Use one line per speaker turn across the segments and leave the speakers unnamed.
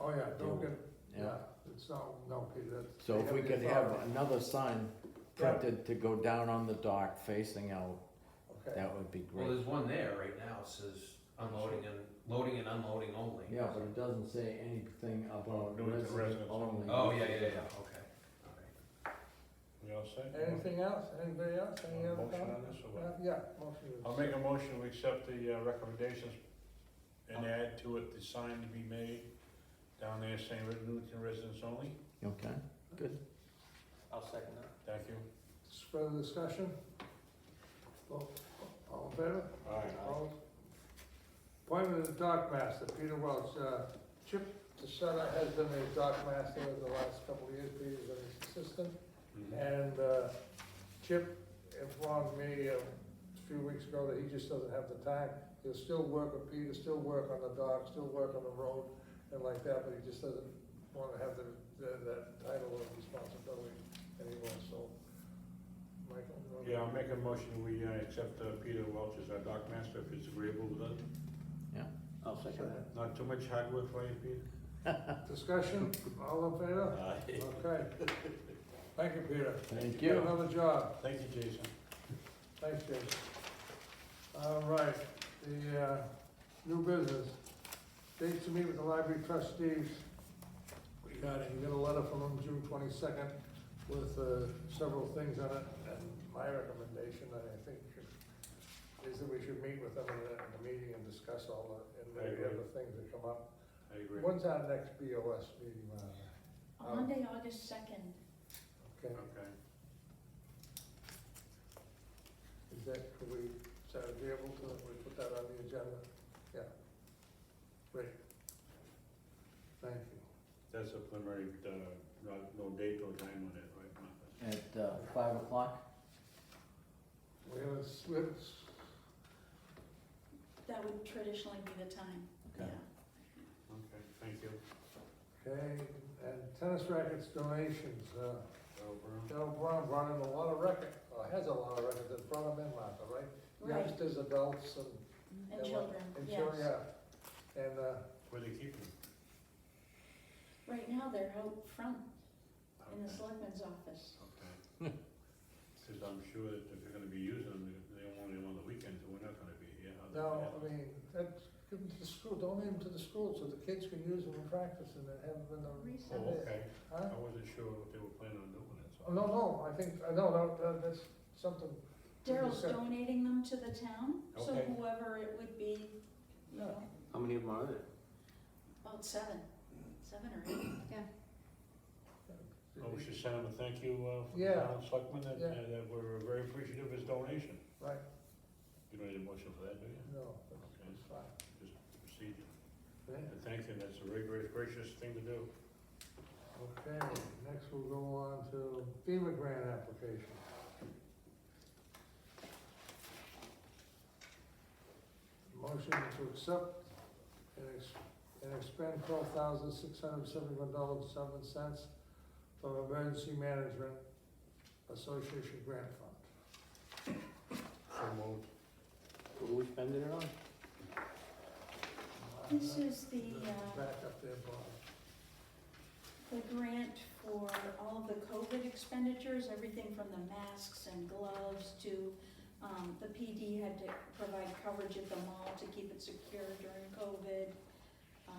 Oh, yeah, don't get, yeah,
Yeah.
it's not, no, Peter, that's.
So
they
if we
the
could have
authority.
another sign printed to go down on the dock facing out,
Okay,
that would be
Well,
great.
there's one there right now, it says unloading and, loading and unloading only.
Yeah, but it doesn't say anything
Well,
about
doing the
resident
residents
only.
only.
Oh, yeah, yeah, yeah, okay, alright.
We all set?
anything else, anybody else, any
Uh,
other
motion on
comments?
this or what?
Yeah, motion is.
I'll make a motion, we accept the uh, recommendations and add to it the sign to be made down there saying re- Newington residents only.
Okay,
I'll second that.
Thank you.
Further discussion? All all in favor?
All right.
Opposed? Appointment of dock master, Peter Welch, uh, Chip DeSena has been a dock master the last couple of years, Peter's been his assistant. And uh, Chip informed me uh, a few weeks ago that he just doesn't have the time. He'll still work with Peter, still work on the dock, still work on the road and like that, but he just doesn't want to have the, the- that title of responsibility anymore, so. Michael? you wanna-
Yeah, I'll make a motion, we uh, accept uh, Peter Welch as our dock master if it's agreeable with us.
I'll second that.
Not too much hard work for you, Peter?
Discussion, all in favor? Okay. Thank you, Peter.
thank
Do
you.
another job.
Thank you, Jason.
Thanks, Jason. All right, the, uh, new business, date to meet with the library trustees. We got it, you got a letter from them June twenty-second with, uh, several things on it, and my recommendation, I think, is that we should meet with them in a, in a meeting and discuss all the, and maybe
I agree.
other things that come up.
I agree.
When's our next BOS meeting, Martha?
Monday, August second,
Okay,
Okay.
is that, could we, is that agreeable to, we put that on the agenda? Yeah. Great. Thank you.
That's a preliminary, uh, no- no date or time on it, right, Martha?
At uh, five o'clock?
We have a slips,
that would traditionally be the time, yeah.
Okay.
Okay, thank you.
okay, and tennis rackets donations, uh,
Darrell
Del
Brown.
Brown brought in a lot of record, or has a lot of records, that brought them in, Martha, right?
Right,
Youngsters, adults, and.
and
yeah,
children,
And
yes.
children, yeah, and, uh,
Where they keep them?
Right now, they're out front in the
Okay.
selectman's office.
Okay. Cause I'm sure that if they're gonna be using them, they they only on the weekends, and we're not gonna be here. How's that
No, I
happen?
mean, that's, give them to the school, donate them to the school so the kids can use them in practice and then have them in the.
Recent.
Oh, okay,
Huh?
I wasn't sure what they were planning on doing, that's
Oh,
all.
no, no, I think, I know, no, that- that's something,
Daryl's
Okay.
donating them to the town, so
Okay.
whoever it would be, you know,
How many of them are there?
about seven, seven or eight.
Oh, we should send him a thank you, uh, from the
Yeah.
town selectmen, that,
Yeah.
that we're very appreciative of his donation.
Right.
You don't need a motion for that, do you?
no,
Okay,
it's fine.
proceed.
Yeah.
And thank you, that's a very great, gracious thing to do.
Okay, next we'll go on to FEMA grant application. Motion to accept and ex- and expend twelve thousand six hundred seventy-one dollars and seven cents from Emergency Management Association Grant Fund.
So moved.
Who are we spending it on?
This is the, uh,
Back up there, Bob.
the grant for all of the COVID expenditures, everything from the masks and gloves to, um, the PD had to provide coverage at the mall to keep it secure during COVID. Uh,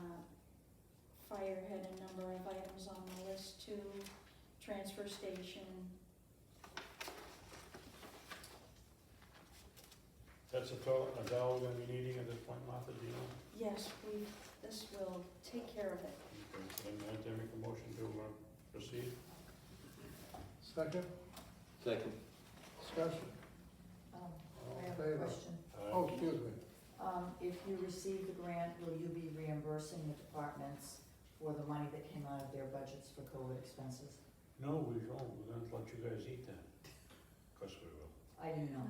Fire had a number of items on the list too, transfer station.
That's a total, a dollar we're gonna be needing at this point, Martha, do you know?
Yes, we, this will take care of it.
Okay, so then I'd make a motion to, uh, proceed.
Second,
Second.
discussion,
Um,
all
I
in
have a
favor?
question.
Aye.
Oh, excuse me,
Um, if you receive the grant, will you be reimbursing the departments for the money that came out of their budgets for COVID expenses?
No, we don't, we're gonna let you guys eat that. Of course we will.
I didn't know.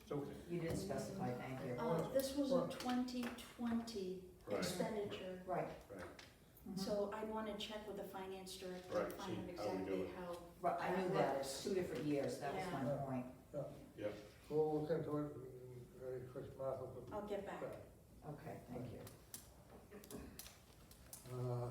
It's okay.
You didn't specify, thank you.
Uh, this was a twenty twenty
Right,
expenditure,
Right.
Right.
Mhm.
so I wanna check with the finance director
Right,
to find
see
out
how we do
exactly
it.
how
Right, I knew that, it's two different years, that was my
Yeah.
point.
we'll look into it, mm, very quick, Martha, but
I'll get back.
Okay, thank you.
Uh,